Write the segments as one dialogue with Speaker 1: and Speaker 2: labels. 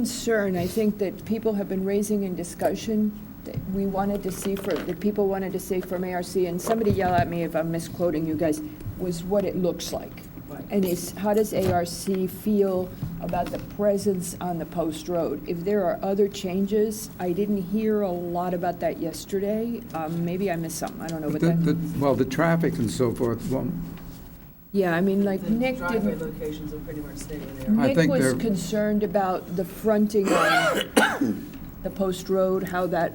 Speaker 1: concern, I think, that people have been raising in discussion, that we wanted to see for, that people wanted to see from ARC, and somebody yell at me if I'm misquoting you guys, was what it looks like. And is, how does ARC feel about the presence on the post road? If there are other changes, I didn't hear a lot about that yesterday. Um, Maybe I missed something, I don't know, but
Speaker 2: The-
Speaker 1: that,
Speaker 2: the- Well, the traffic and so forth, well,
Speaker 1: yeah, I mean, like
Speaker 3: The
Speaker 1: Nick
Speaker 3: Driveway
Speaker 1: didn't,
Speaker 3: locations will pretty much stay where they are.
Speaker 2: I
Speaker 1: Nick
Speaker 2: think
Speaker 1: was
Speaker 2: they're-
Speaker 1: concerned about the fronting on the post road, how that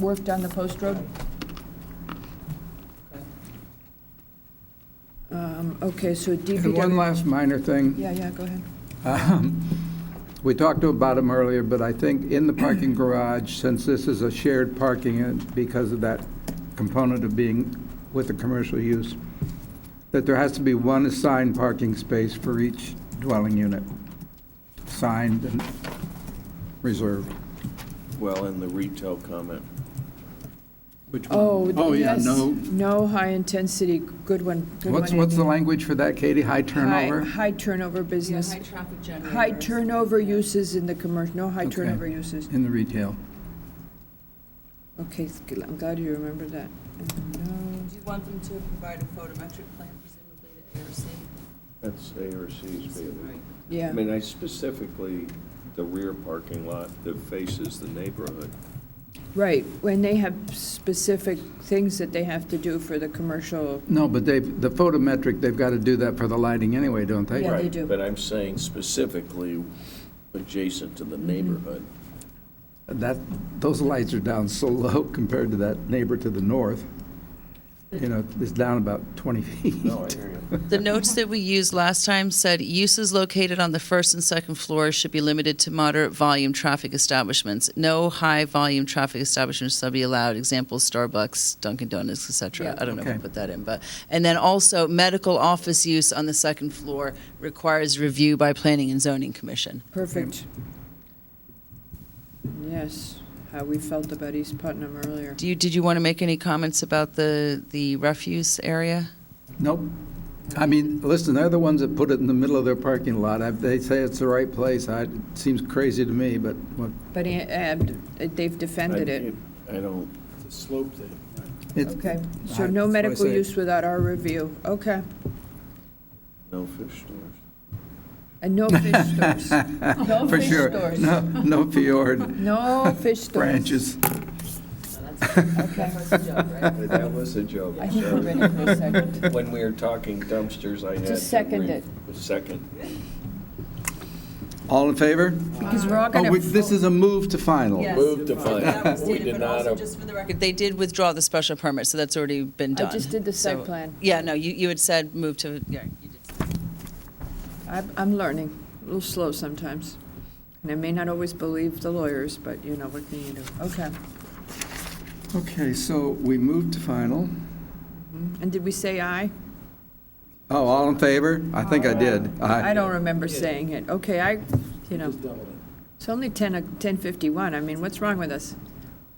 Speaker 1: worked on the post road.
Speaker 3: Okay.
Speaker 1: Um, Okay, so
Speaker 2: and one
Speaker 1: DPW,
Speaker 2: last minor thing.
Speaker 1: yeah, yeah, go ahead.
Speaker 2: Um, We talked about them earlier, but I think in the parking garage, since this is a shared parking, and because of that component of being with the commercial use, that there has to be one assigned parking space for each dwelling unit, signed and reserved.
Speaker 4: Well, in the retail comment,
Speaker 5: Which one?
Speaker 1: Oh, th-
Speaker 5: yeah,
Speaker 1: yes.
Speaker 5: no.
Speaker 1: No high-intensity, good one, good one.
Speaker 2: What's, what's the
Speaker 1: Andy.
Speaker 2: language for that, Katie? High
Speaker 1: High-
Speaker 2: turnover?
Speaker 1: High turnover
Speaker 3: Yeah,
Speaker 1: business.
Speaker 3: high traffic generators.
Speaker 1: High turnover uses in the commercial, no high
Speaker 2: Okay.
Speaker 1: turnover uses.
Speaker 2: In the retail.
Speaker 1: Okay, it's good. I'm glad you remembered that.
Speaker 3: Do
Speaker 1: And
Speaker 3: you want them to provide a photometric plan presumably to ARC?
Speaker 4: that's ARC's
Speaker 3: Right.
Speaker 4: baby.
Speaker 1: no-
Speaker 4: I
Speaker 1: Yeah,
Speaker 4: mean, I specifically, the rear parking lot that faces the neighborhood.
Speaker 1: right, when they have specific things that they have to do for the commercial,
Speaker 2: No, but they, the photometric, they've got to do that for the lighting anyway, don't they?
Speaker 1: Yeah, they
Speaker 4: Right,
Speaker 1: do.
Speaker 4: But I'm saying specifically adjacent to the neighborhood.
Speaker 2: That, those lights are down so low compared to that neighbor to the north. You know, it's down about 20 feet.
Speaker 4: No, I hear you.
Speaker 6: The notes that we used last time said uses located on the first and second floors should be limited to moderate volume traffic establishments. No high volume traffic establishments shall be allowed. Examples: Starbucks, Dunkin' Donuts, etc.
Speaker 1: Yeah.
Speaker 6: I don't know if
Speaker 2: Okay.
Speaker 6: I put that in, but and then also medical office use on the second floor requires review by Planning and Zoning Commission.
Speaker 1: perfect. Yes, how we felt about East Putnam earlier.
Speaker 6: Do you did you want to make any comments about the the refuse area?
Speaker 2: Nope. I mean, listen, they're the ones that put it in the middle of their parking lot. I- They say it's the right place. I- It seems crazy to me, but what-
Speaker 1: But uh, uh, they've defended it.
Speaker 4: I don't.
Speaker 5: The slope thing. right.
Speaker 2: it's,
Speaker 1: Okay, so
Speaker 2: I-
Speaker 1: no
Speaker 2: that's why I
Speaker 1: medical
Speaker 2: say-
Speaker 1: use without our review, okay.
Speaker 4: No fish stores.
Speaker 1: And no fish stores, no
Speaker 2: for
Speaker 1: fish
Speaker 2: sure.
Speaker 1: stores.
Speaker 2: No, no fjord
Speaker 1: No fish stores.
Speaker 2: branches.
Speaker 3: So that's, that's a joke, right?
Speaker 4: That was a joke.
Speaker 1: I think we're ready for a second.
Speaker 4: When we were talking dumpsters, I had.
Speaker 1: Just second
Speaker 4: re-
Speaker 1: it.
Speaker 4: Second.
Speaker 2: All in favor?
Speaker 1: Because we're all
Speaker 2: Oh,
Speaker 1: gonna.
Speaker 2: we- this is a move to final.
Speaker 3: Yes.
Speaker 4: Move to final.
Speaker 3: That was
Speaker 4: Uh, We
Speaker 3: stated,
Speaker 4: did
Speaker 3: but
Speaker 4: not uh,
Speaker 3: also
Speaker 4: op-
Speaker 3: just for the record,
Speaker 6: They did withdraw the special permit, so that's already been
Speaker 1: I
Speaker 6: done.
Speaker 1: just did the site
Speaker 6: So-
Speaker 1: plan.
Speaker 6: Yeah, no, you, you had said move to, yeah, you did.
Speaker 1: I'm, I'm learning, a little slow sometimes. And I may not always believe the lawyers, but you know, what can you do? Okay.
Speaker 2: Okay, so we move to final.
Speaker 1: And did we say aye?
Speaker 2: Oh, all in favor? I think I did.
Speaker 1: I don't remember saying it. Okay, I, you know,
Speaker 5: Just double it.
Speaker 1: it's only 10, o- 10:51. I mean, what's wrong with us?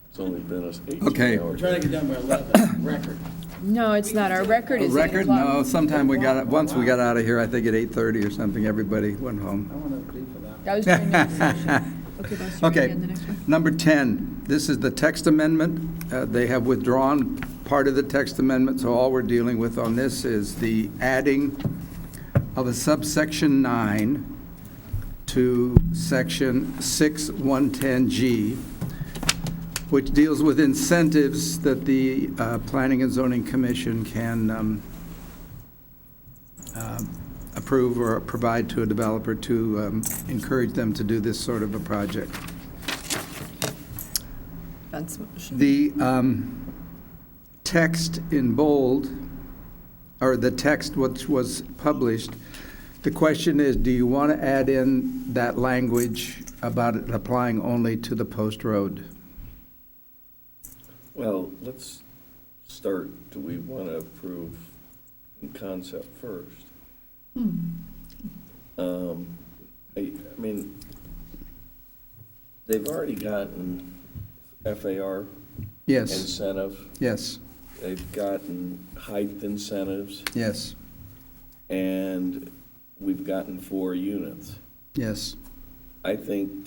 Speaker 4: It's only been us
Speaker 2: Okay.
Speaker 4: eighteen
Speaker 5: We're
Speaker 4: hours.
Speaker 5: trying to get done by 11, record.
Speaker 1: No, it's not. Our record
Speaker 2: A
Speaker 1: is 8
Speaker 2: record? No,
Speaker 1: o'clock.
Speaker 2: sometime we got, once we got out of here, I think at 8:30 or something, everybody went home.
Speaker 5: I want to plead for that.
Speaker 1: That was during the session. Okay, boss, you ready
Speaker 2: Okay.
Speaker 1: on the next one?
Speaker 2: Number 10, this is the text amendment. Uh, They have withdrawn part of the text amendment, so all we're dealing with on this is the adding of a subsection 9 to section 6110G, which deals with incentives that the uh, Planning and Zoning Commission can um, um, approve or provide to a developer to um, encourage them to do this sort of a project.
Speaker 1: That's motion.
Speaker 2: The um, text in bold, or the text which was published, the question is, do you want to add in that language about it applying only to the post road?
Speaker 4: Well, let's start, do we want to approve in concept first? Um, I, I mean, they've already gotten FAR
Speaker 2: Yes,
Speaker 4: incentive,
Speaker 2: yes,
Speaker 4: they've gotten height incentives,
Speaker 2: yes,
Speaker 4: and we've gotten four units.
Speaker 2: yes.
Speaker 4: I think